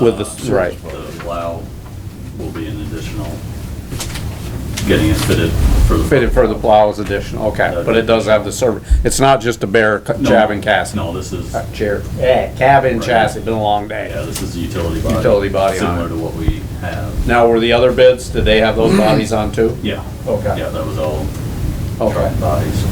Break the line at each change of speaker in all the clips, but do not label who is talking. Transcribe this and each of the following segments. With
uh,
the-
surge
right.
boat. The plow will be an additional, getting it fitted for the.
Fitted for the plow is additional, okay, but it does have the server, it's not just a bare ca-
No,
cab and chassis.
No, this is,
Uh, Chair, eh, cab and
Right.
chassis, been a long day.
yeah, this is a utility body.
Utility body on it.
Similar to what we have.
Now, were the other bids, did they have those bodies on too?
Yeah,
Okay,
yeah, that was all
okay.
truck bodies.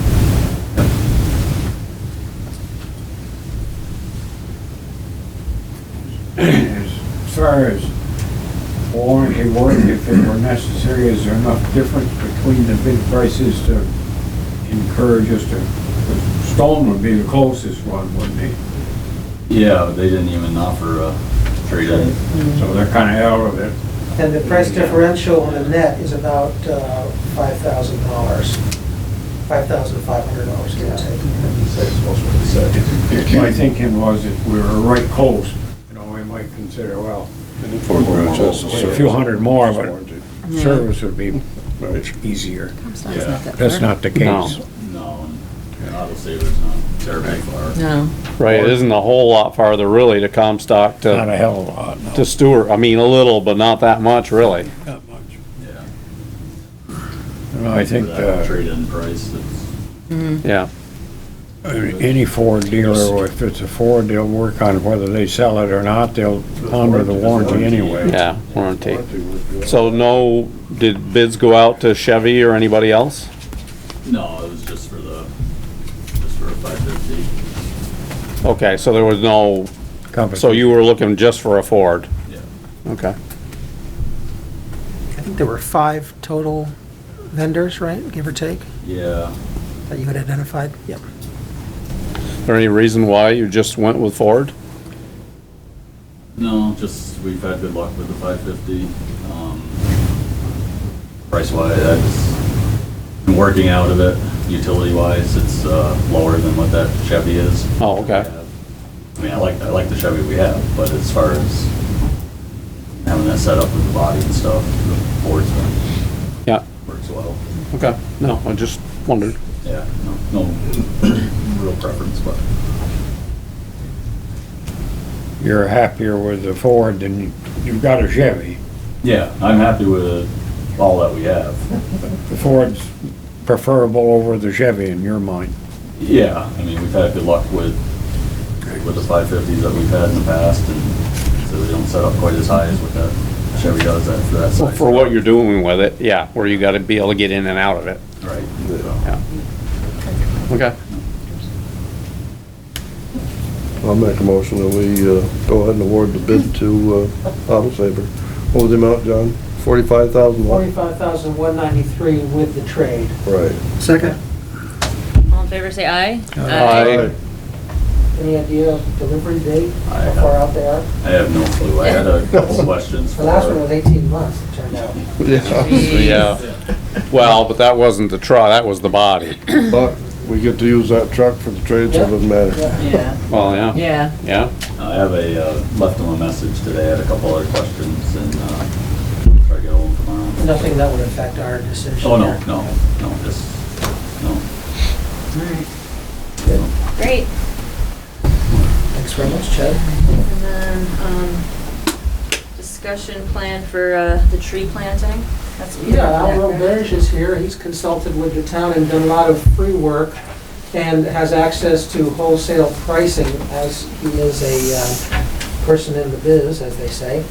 As far as warranty work, if it were necessary, is there enough difference between the bid prices to encourage us to, Stone would be the closest one, wouldn't he?
Yeah, but they didn't even offer a trade-in.
So they're kind of out of it.
And the price differential on the net is about uh, $5,000, $5,500, give or take.
So My thinking was if we were right close, you know, we might consider, well, a few hundred more, but
Yeah.
service would be much easier.
Comstock's
Yeah.
not that
That's
far.
not the
No.
case.
No, and obviously there's not terribly far.
No,
Right, it isn't a whole lot farther really to Comstock
Not
to,
a hell of a lot, no,
to Stewart, I mean, a little, but not that much really.
not much.
Yeah.
No, I think,
For that
uh,
Trade-in price, it's,
Yeah,
any Ford dealer, if it's a Ford, they'll work on whether they sell it or not, they'll honor the warranty anyway.
yeah, warranty. So no, did bids go out to Chevy or anybody else?
no, it was just for the, just for a five fifty.
Okay, so there was no,
Company.
so you were looking just for a Ford?
Yeah.
Okay.
I think there were five total vendors, right, give or take,
Yeah,
that you had identified? Yep.
Is there any reason why you just went with Ford?
no, just, we've had good luck with the five fifty. Um, Price wise, that's, been working out of it, utility wise, it's uh, lower than what that Chevy is.
Oh, okay.
I mean, I like, I like the Chevy we have, but as far as having that set up with the body and stuff, the Ford's been,
Yeah,
works well.
okay, no, I just wondered.
Yeah, no, no real preference, but.
You're happier with the Ford than you- you've got a Chevy.
Yeah, I'm happy with all that we have.
The Ford's preferable over the Chevy in your mind.
Yeah, I mean, we've had good luck with, with the five fifties that we've had in the past, and so they don't set up quite as high as what that Chevy does that- for that size.
For what you're doing with it, yeah, where you gotta be able to get in and out of it.
Right.
Okay.
I'll make a motion that we uh, go ahead and award the bid to uh, Auto Saver. What was the amount, John? Forty-five thousand?
$45,193 with the trade.
Right.
Second.
all in favor, say aye.
Aye.
Any idea of delivery date,
I
how
have-
far out they are?
I have no clue. I had a couple questions for.
The last one was 18 months, it turned out.
Yeah,
Yeah, well, but that wasn't the truck, that was the body.
but we get to use that truck for the trade, so it doesn't matter.
Yeah.
Well, yeah,
Yeah,
yeah,
I have a, uh, left them a message today. I had a couple other questions and, uh, try to get hold of them tomorrow.
Nothing that would affect our decision.
Oh, no, no, no, just, no.
all right. Great,
Thanks very much, Chad.
and then, um, discussion plan for, uh, the tree planting? That's what you're
Yeah, Al
looking at, right?
Roberge is here. He's consulted with the town and done a lot of free work and has access to wholesale pricing as he is a uh, person in the biz, as they say.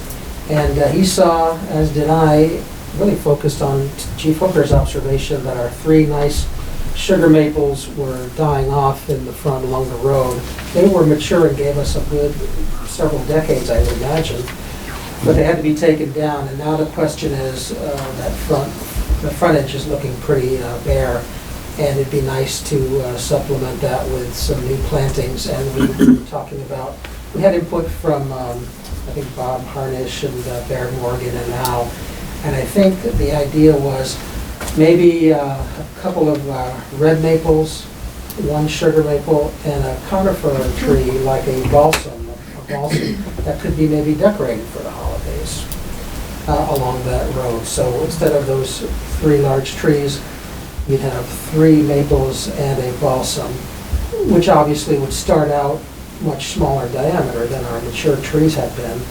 And uh, he saw, as did I, really focused on Chief Hooker's observation that our three nice sugar maples were dying off in the front along the road. They were mature and gave us a good several decades, I would imagine but they had to be taken down, and now the question is, uh, that front, the frontage is looking pretty uh, bare, and it'd be nice to uh, supplement that with some new plantings, and we were talking about, we had input from, um, I think, Bob Harnish and uh, Bear Morgan and Al, and I think that the idea was maybe uh, a couple of uh, red maples, one sugar maple, and a conifer tree like a balsam, a balsam that could be maybe decorated for the holidays uh, along that road. So instead of those three large trees, you'd have three maples and a balsam, which obviously would start out much smaller diameter than our mature trees have been.